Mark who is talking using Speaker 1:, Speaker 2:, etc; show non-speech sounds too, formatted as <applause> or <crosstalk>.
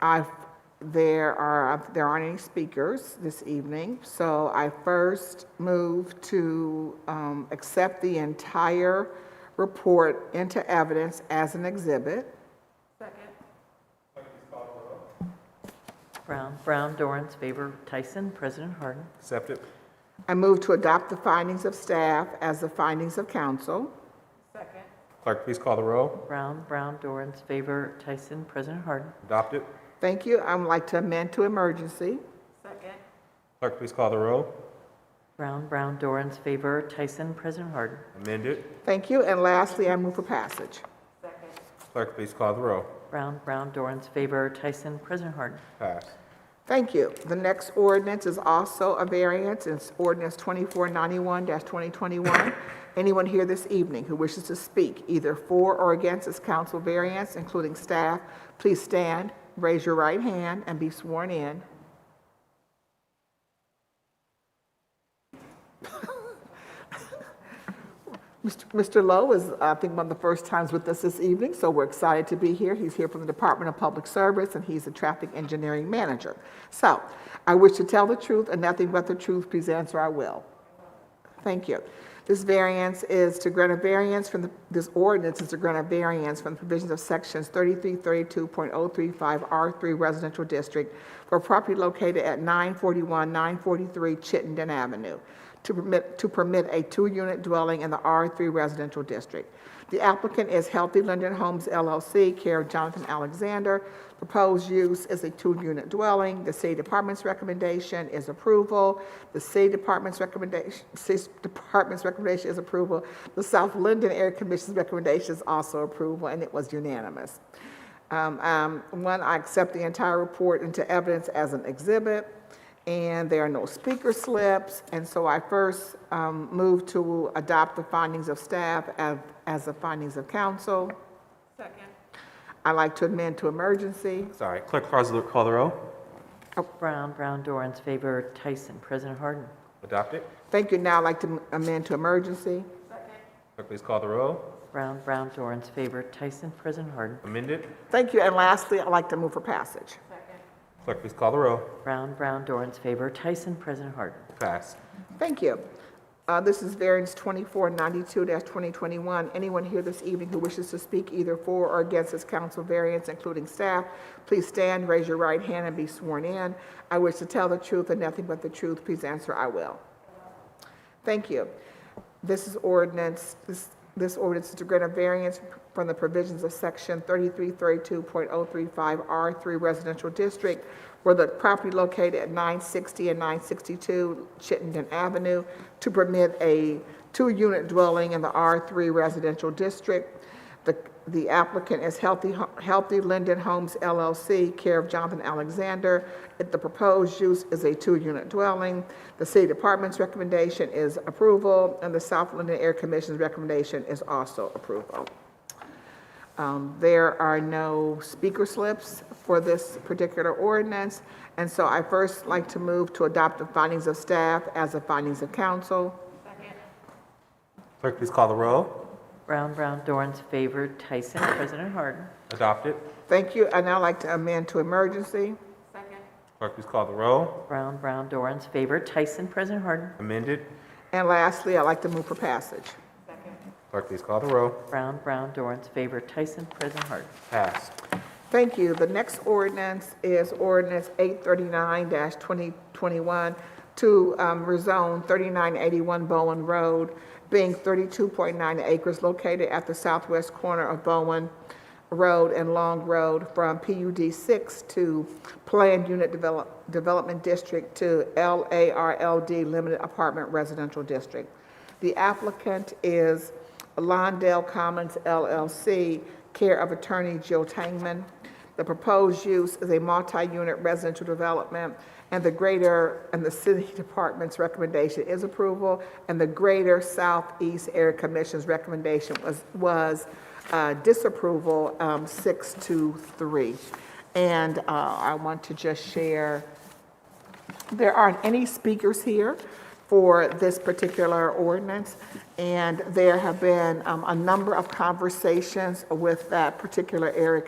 Speaker 1: I, there are, there aren't any speakers this evening, so I first move to um, accept the entire report into evidence as an exhibit.
Speaker 2: Brown, Brown, Dorans, favor, Tyson, President Harden.
Speaker 3: Accept it.
Speaker 1: I move to adopt the findings of staff as the findings of council.
Speaker 3: Clerk, please call the row.
Speaker 2: Brown, Brown, Dorans, favor, Tyson, President Harden.
Speaker 3: Adopt it.
Speaker 1: Thank you. I would like to amend to emergency.
Speaker 3: Clerk, please call the row.
Speaker 2: Brown, Brown, Dorans, favor, Tyson, President Harden.
Speaker 3: Amend it.
Speaker 1: Thank you. And lastly, I move for passage.
Speaker 3: Clerk, please call the row.
Speaker 2: Brown, Brown, Dorans, favor, Tyson, President Harden.
Speaker 3: Pass.
Speaker 1: Thank you. The next ordinance is also a variance. It's ordinance 2491-2021. Anyone here this evening who wishes to speak either for or against this council variance, including staff, please stand, raise your right hand, and be sworn in. Mr. Mr. Lowe is, I think, one of the first times with us this evening, so we're excited to be here. He's here from the Department of Public Service, and he's a traffic engineering manager. So, I wish to tell the truth and nothing but the truth, please answer I will. Thank you. This variance is to grant a variance from the, this ordinance is to grant a variance from the provisions of sections 3332.035R3 Residential District for property located at 941, 943 Chittenden Avenue to permit, to permit a two-unit dwelling in the R3 Residential District. The applicant is Healthy Linden Homes LLC, care of Jonathan Alexander. Proposed use is a two-unit dwelling. The city department's recommendation is approval. The city department's recommendation, city department's recommendation is approval. The South Linden Area Commission's recommendation is also approval, and it was unanimous. Um, um, One, I accept the entire report into evidence as an exhibit. And there are no speaker slips, and so I first um, move to adopt the findings of staff as, as the findings of council. I'd like to amend to emergency.
Speaker 3: Sorry. Clerk, please call the row.
Speaker 2: Brown, Brown, Dorans, favor, Tyson, President Harden.
Speaker 3: Adopt it.
Speaker 1: Thank you, now I'd like to amend to emergency.
Speaker 3: Clerk, please call the row.
Speaker 2: Brown, Brown, Dorans, favor, Tyson, President Harden.
Speaker 3: Amend it.
Speaker 1: Thank you, and lastly, I'd like to move for passage.
Speaker 3: Clerk, please call the row.
Speaker 2: Brown, Brown, Dorans, favor, Tyson, President Harden.
Speaker 3: Pass.
Speaker 1: Thank you. Uh, This is variance 2492-2021. Anyone here this evening who wishes to speak either for or against this council variance, including staff, please stand, raise your right hand, and be sworn in. I wish to tell the truth and nothing but the truth. Please answer, I will. Thank you. This is ordinance, this, this ordinance is to grant a variance from the provisions of section 3332.035R3 Residential District where the property located at 960 and 962 Chittenden Avenue to permit a two-unit dwelling in the R3 Residential District. The, the applicant is Healthy, Ho- Healthy Linden Homes LLC, care of Jonathan Alexander. If The proposed use is a two-unit dwelling. The city department's recommendation is approval, and the South Linden Air Commission's recommendation is also approval. Um, There are no speaker slips for this particular ordinance, and so I first like to move to adopt the findings of staff as the findings of council.
Speaker 3: Clerk, please call the row.
Speaker 2: Brown, Brown, Dorans, favor, Tyson, President Harden.
Speaker 3: Adopt it.
Speaker 1: Thank you, and I'd like to amend to emergency.
Speaker 3: Clerk, please call the row.
Speaker 2: Brown, Brown, Dorans, favor, Tyson, President Harden.
Speaker 3: Amend it.
Speaker 1: And lastly, I'd like to move for passage.
Speaker 3: Clerk, please call the row.
Speaker 2: Brown, Brown, Dorans, favor, Tyson, President Harden.
Speaker 3: Pass.
Speaker 1: Thank you. The next ordinance is ordinance 839-2021 to um, rezone 3981 Bowen Road, being 32.9 acres located at the southwest corner of Bowen Road and Long Road from PUD 6 to Planned Unit Develop- Development District to LARLD Limited Apartment Residential District. The applicant is Londell Commons LLC, care of attorney Jill Tangman. The proposed use is a multi-unit residential development, and the greater, and the city <laughs> department's recommendation is approval, and the Greater Southeast Area Commission's recommendation was, was uh, disapproval, um, six to three. And uh, I want to just share there aren't any speakers here for this particular ordinance, and there have been um, a number of conversations with that particular area